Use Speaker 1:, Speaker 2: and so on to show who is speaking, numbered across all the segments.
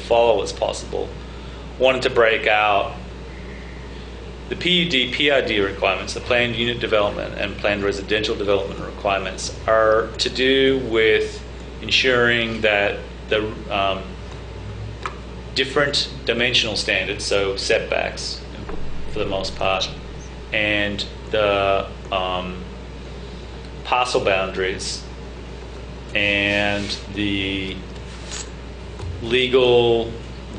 Speaker 1: follow as possible, wanted to break out the PUD, PID requirements, the planned unit development and planned residential development requirements are to do with ensuring that the um, different dimensional standards, so setbacks for the most part, and the um, parcel boundaries and the legal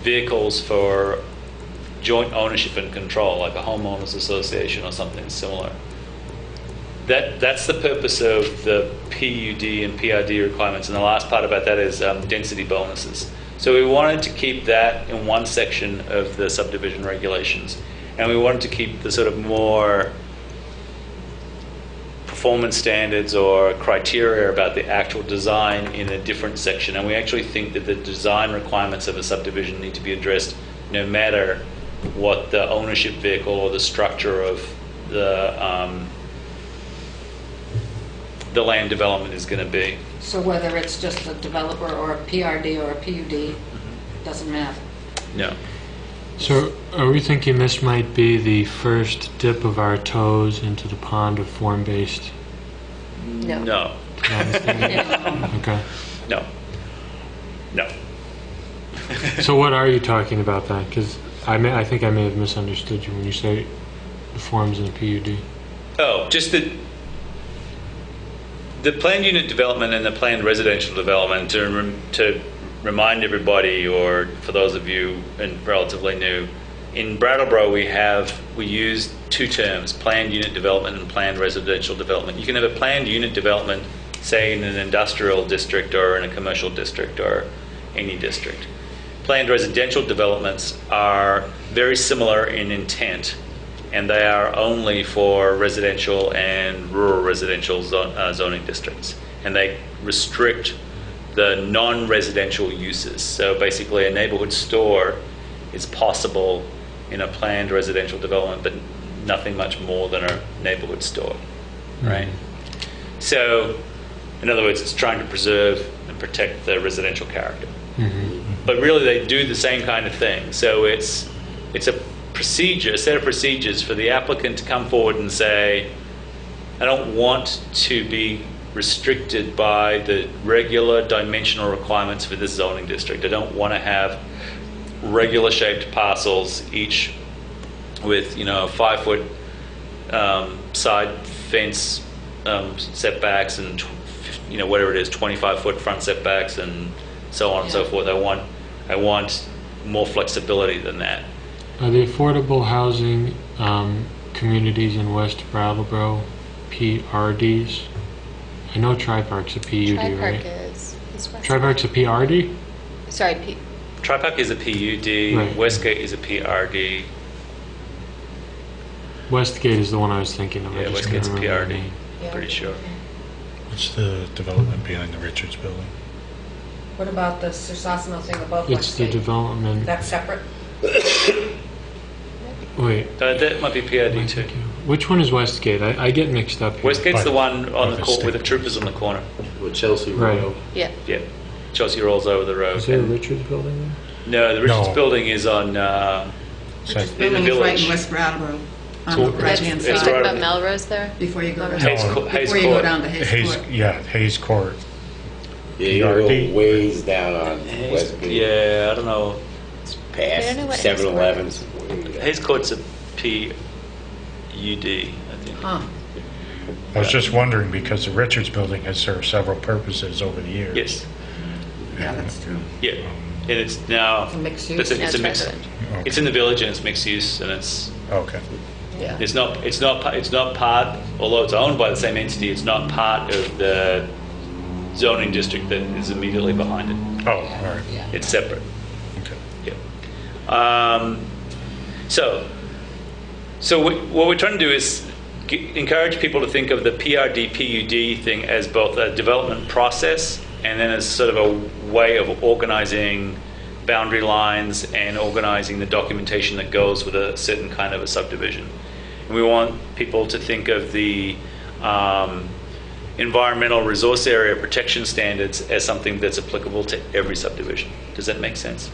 Speaker 1: vehicles for joint ownership and control, like a homeowners association or something similar. That, that's the purpose of the PUD and PID requirements. And the last part about that is um, density bonuses. So we wanted to keep that in one section of the subdivision regulations. And we wanted to keep the sort of more performance standards or criteria about the actual design in a different section. And we actually think that the design requirements of a subdivision need to be addressed no matter what the ownership vehicle or the structure of the, um, the land development is going to be.
Speaker 2: So whether it's just a developer or a PRD or a PUD,
Speaker 1: Mm-hmm.
Speaker 2: doesn't matter.
Speaker 1: No.
Speaker 3: So are we thinking this might be the first dip of our toes into the pond of form-based?
Speaker 4: No.
Speaker 1: No.
Speaker 2: Um,
Speaker 3: Okay.
Speaker 1: No. No.
Speaker 3: So what are you talking about then? Because I may, I think I may have misunderstood you when you say the forms in the PUD.
Speaker 1: Oh, just the, the planned unit development and the planned residential development, to, rem- to remind everybody, or for those of you and relatively new, in Brattleboro, we have, we use two terms, planned unit development and planned residential development. You can have a planned unit development, say in an industrial district or in a commercial district or any district. Planned residential developments are very similar in intent, and they are only for residential and rural residential zo- uh, zoning districts. And they restrict the non-residential uses. So basically, a neighborhood store is possible in a planned residential development, but nothing much more than a neighborhood store, right? So, in other words, it's trying to preserve and protect the residential character but really they do the same kind of thing. So it's it's a procedure, a set of procedures for the applicant to come forward and say, I don't want to be restricted by the regular dimensional requirements for this zoning district. I don't want to have regular shaped parcels, each with you know a five foot um, side fence um, setbacks and tw- you know whatever it is, 25 foot front setbacks and so on and so
Speaker 2: Yeah.
Speaker 1: forth. I want I want more flexibility than that.
Speaker 3: Are the affordable housing um, communities in West Brattleboro PRDs? I know Tri Park's a PUD,
Speaker 4: Tri-Park
Speaker 3: right?
Speaker 4: is, is west.
Speaker 3: Tri Park's a PRD?
Speaker 4: Sorry, P-
Speaker 1: Tripac is a PUD,
Speaker 3: Right.
Speaker 1: Westgate is a PRD.
Speaker 3: Westgate is the one I was thinking of. I
Speaker 1: Yeah,
Speaker 3: just couldn't
Speaker 1: Westgate's a
Speaker 3: remember the
Speaker 1: PRD.
Speaker 3: name.
Speaker 4: Yeah.
Speaker 1: Pretty sure.
Speaker 5: What's the development behind the Richards Building?
Speaker 2: What about the Sursasano thing above
Speaker 3: It's the
Speaker 2: Westgate?
Speaker 3: development.
Speaker 2: That's separate?
Speaker 3: Wait.
Speaker 1: Uh, that might be PRD too.
Speaker 3: Which one is Westgate? I, I get mixed up. Here.
Speaker 1: Westgate's the
Speaker 5: Right.
Speaker 1: one on the
Speaker 5: Right,
Speaker 1: court with the
Speaker 5: stick.
Speaker 1: troopers on the corner.
Speaker 6: With Chelsea
Speaker 3: Right.
Speaker 6: Road.
Speaker 4: yeah.
Speaker 1: Yeah. Chelsea rolls over the road.
Speaker 3: Is there a
Speaker 1: and-
Speaker 3: Richards building there?
Speaker 1: no, the Richards
Speaker 5: No.
Speaker 1: Building is on uh,
Speaker 5: So I-
Speaker 1: in the
Speaker 7: Building's right
Speaker 1: village.
Speaker 7: in West Brattleboro, on
Speaker 1: So
Speaker 7: the
Speaker 1: it's-
Speaker 7: right-hand
Speaker 4: Are you
Speaker 1: it's
Speaker 7: side,
Speaker 4: talking
Speaker 1: right-
Speaker 4: about Melrose there?
Speaker 7: before you go to,
Speaker 1: Hayes,
Speaker 7: before
Speaker 1: Co-
Speaker 5: No.
Speaker 1: Hayes
Speaker 7: you go
Speaker 1: Court.
Speaker 7: down to Hayes
Speaker 5: Hayes,
Speaker 7: Court.
Speaker 5: yeah, Hayes Court.
Speaker 6: Yeah, you gotta
Speaker 5: PRD.
Speaker 6: go ways down on
Speaker 1: Hayes-
Speaker 6: Westgate.
Speaker 1: yeah, I don't know.
Speaker 4: I don't know what
Speaker 6: Past
Speaker 4: it is.
Speaker 6: 7 Elevens.
Speaker 1: Hayes Court's a PUD, I think.
Speaker 7: Huh.
Speaker 5: I was just wondering, because the Richards Building has served several purposes over the years.
Speaker 1: Yes.
Speaker 7: Yeah, that's true.
Speaker 1: Yeah. And it's now.
Speaker 2: a mixed
Speaker 1: It's a,
Speaker 2: use?
Speaker 1: it's a mix.
Speaker 5: Okay.
Speaker 1: It's in the village and it's mixed use and it's
Speaker 5: Okay.
Speaker 4: Yeah.
Speaker 1: It's not, it's not, pa- it's not part, although it's owned by the same entity, it's not part of the zoning district that is immediately behind it.
Speaker 5: Oh, all right.
Speaker 1: It's separate.
Speaker 5: Okay.
Speaker 1: Yep. Um, so, so we, what we're trying to do is g- encourage people to think of the PRD PUD thing as both a development process and then as sort of a way of organizing boundary lines and organizing the documentation that goes with a certain kind of a subdivision. And we want people to think of the um, environmental resource area protection standards as something that's applicable to every subdivision. Does that make sense?